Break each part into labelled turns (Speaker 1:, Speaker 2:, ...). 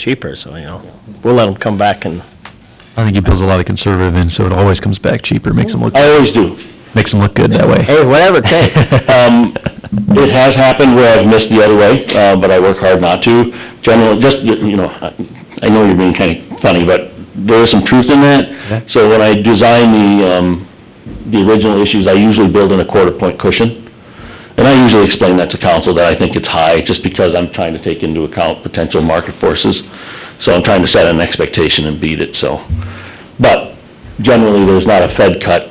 Speaker 1: cheaper, so, you know, we'll let them come back and,
Speaker 2: I think he builds a lot of conservative in, so it always comes back cheaper, makes him look,
Speaker 1: Oh.
Speaker 3: I always do.
Speaker 2: makes him look good that way.
Speaker 1: hey, whatever it takes.
Speaker 3: Um, it has happened where I've missed the other way, uh, but I work hard not to. Generally, just, you know, I I know you're being kinda funny, but there is some truth in that. So when I design the, um, the original issues, I usually build in a quarter point cushion. And I usually explain that to council, that I think it's high, just because I'm trying to take into account potential market forces. So I'm trying to set an expectation and beat it, so. But generally, there's not a Fed cut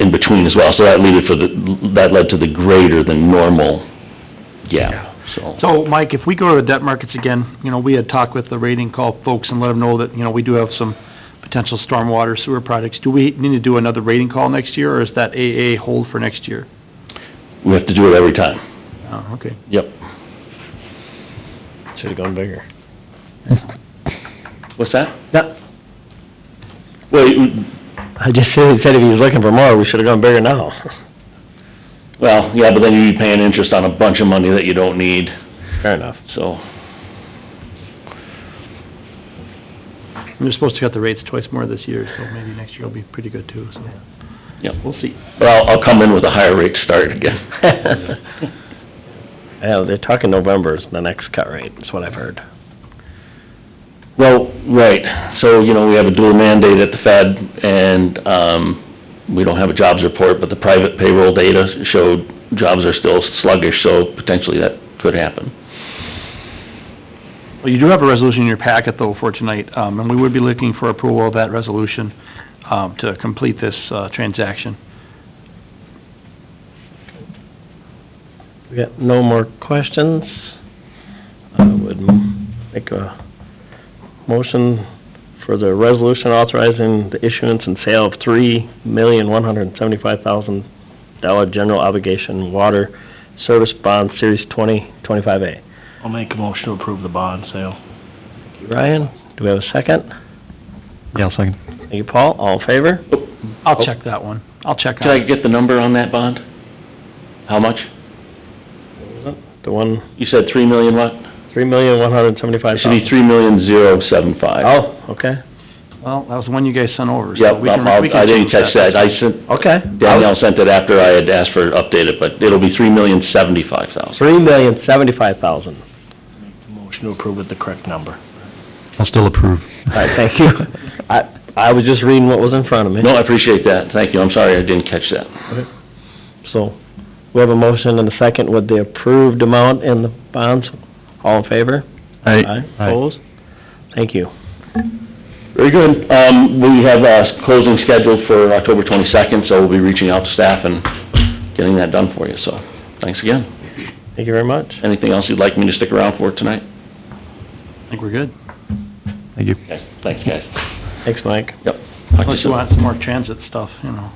Speaker 3: in between as well, so that led for the, that led to the greater than normal gap, so.
Speaker 4: So, Mike, if we go to the debt markets again, you know, we had talked with the rating call folks and let them know that, you know, we do have some potential stormwater sewer projects. Do we need to do another rating call next year, or is that AA hold for next year?
Speaker 3: We have to do it every time.
Speaker 4: Oh, okay.
Speaker 3: Yep.
Speaker 1: Should've gone bigger.
Speaker 3: What's that?
Speaker 1: No,
Speaker 3: Well,
Speaker 1: I just said, said if he was looking for more, we should've gone bigger now.
Speaker 3: well, yeah, but then you'd be paying interest on a bunch of money that you don't need,
Speaker 1: Fair enough.
Speaker 3: so.
Speaker 4: We're supposed to cut the rates twice more this year, so maybe next year will be pretty good too, so.
Speaker 3: Yep, we'll see. But I'll, I'll come in with a higher rate start again.
Speaker 1: Yeah, they're talking November is the next cut rate, is what I've heard.
Speaker 3: Well, right, so, you know, we have a dual mandate at the Fed, and, um, we don't have a jobs report, but the private payroll data showed jobs are still sluggish, so potentially that could happen.
Speaker 4: Well, you do have a resolution in your packet though for tonight, um, and we would be looking for approval of that resolution, um, to complete this, uh, transaction.
Speaker 1: We got no more questions. I would m- make a motion for the resolution authorizing the issuance and sale of three million, one hundred and seventy-five thousand dollar general obligation water service bond, series twenty, twenty-five A.
Speaker 5: I'll make a motion to approve the bond sale.
Speaker 1: Ryan, do we have a second?
Speaker 2: Yeah, I'll second.
Speaker 1: Thank you, Paul. All in favor?
Speaker 4: I'll check that one. I'll check on
Speaker 3: Oh. Can I
Speaker 4: it.
Speaker 3: get the number on that bond? How much?
Speaker 1: The one,
Speaker 3: You said three million what?
Speaker 1: three million, one hundred and seventy-five
Speaker 3: It should be
Speaker 1: thousand.
Speaker 3: three million zero seven five.
Speaker 1: Oh, okay,
Speaker 4: Well, that was the one you guys sent over,
Speaker 3: Yep, um,
Speaker 4: so we can, we
Speaker 3: I'll-
Speaker 4: can
Speaker 3: I didn't catch
Speaker 4: change
Speaker 3: that. I sent,
Speaker 1: okay.
Speaker 3: Danielle sent it after I had asked for it updated, but it'll be three million seventy-five thousand.
Speaker 1: Three million, seventy-five thousand.
Speaker 5: Motion to approve with the correct number.
Speaker 2: I'll still approve.
Speaker 1: All right, thank you. I, I was just reading what was in front of me.
Speaker 3: No, I appreciate that. Thank you. I'm sorry I didn't catch that.
Speaker 1: So, we have a motion and a second with the approved amount and the bonds. All in favor?
Speaker 2: Aye.
Speaker 1: Opposed? Thank you.
Speaker 3: Very good. Um, we have a closing scheduled for October twenty-second, so we'll be reaching out to staff and getting that done for you, so thanks again.
Speaker 1: Thank you very much.
Speaker 3: Anything else you'd like me to stick around for tonight?
Speaker 4: I think we're good.
Speaker 2: Thank you.
Speaker 3: Okay, thanks, guys.
Speaker 1: Thanks, Mike.
Speaker 3: Yep. Talk to you
Speaker 4: Unless you
Speaker 3: soon.
Speaker 4: want some more transit stuff, you know.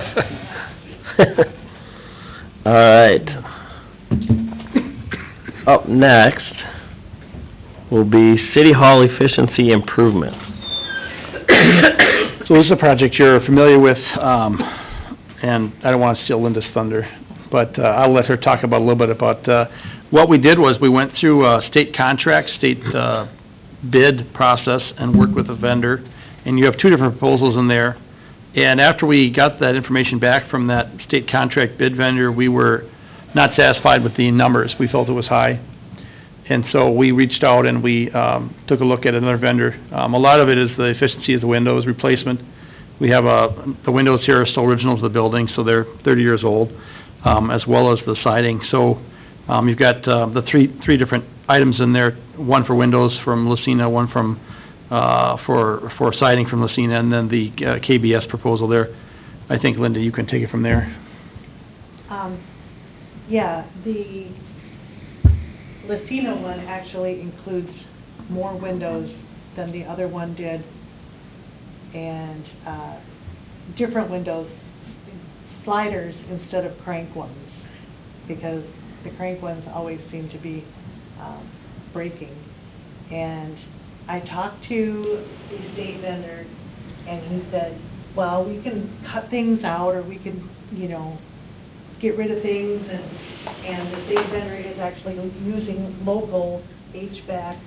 Speaker 1: All right. Up next will be City Hall Efficiency Improvement.
Speaker 4: So this is a project you're familiar with, um, and I don't want to steal Linda's thunder, but uh, I'll let her talk about, a little bit about, uh, what we did was we went through uh state contract, state uh, bid process and worked with a vendor, and you have two different proposals in there. And after we got that information back from that state contract bid vendor, we were not satisfied with the numbers. We felt it was high. And so we reached out and we um, took a look at another vendor. Um, A lot of it is the efficiency of the windows replacement. We have, uh, the windows here are still original to the building, so they're 30 years old, um, as well as the siding. So um, you've got uh, the three, three different items in there, one for windows from Lucina, one from, uh, for, for siding from Lucina, and then the uh, KBS proposal there. I think, Linda, you can take it from there.
Speaker 6: Um, yeah, the Lucina one actually includes more windows than the other one did, and, uh, different windows, sliders instead of crank ones, because the crank ones always seem to be, um, breaking. And I talked to the state vendor, and he said, well, we can cut things out, or we can, you know, get rid of things, and, and the state vendor is actually using local HVAC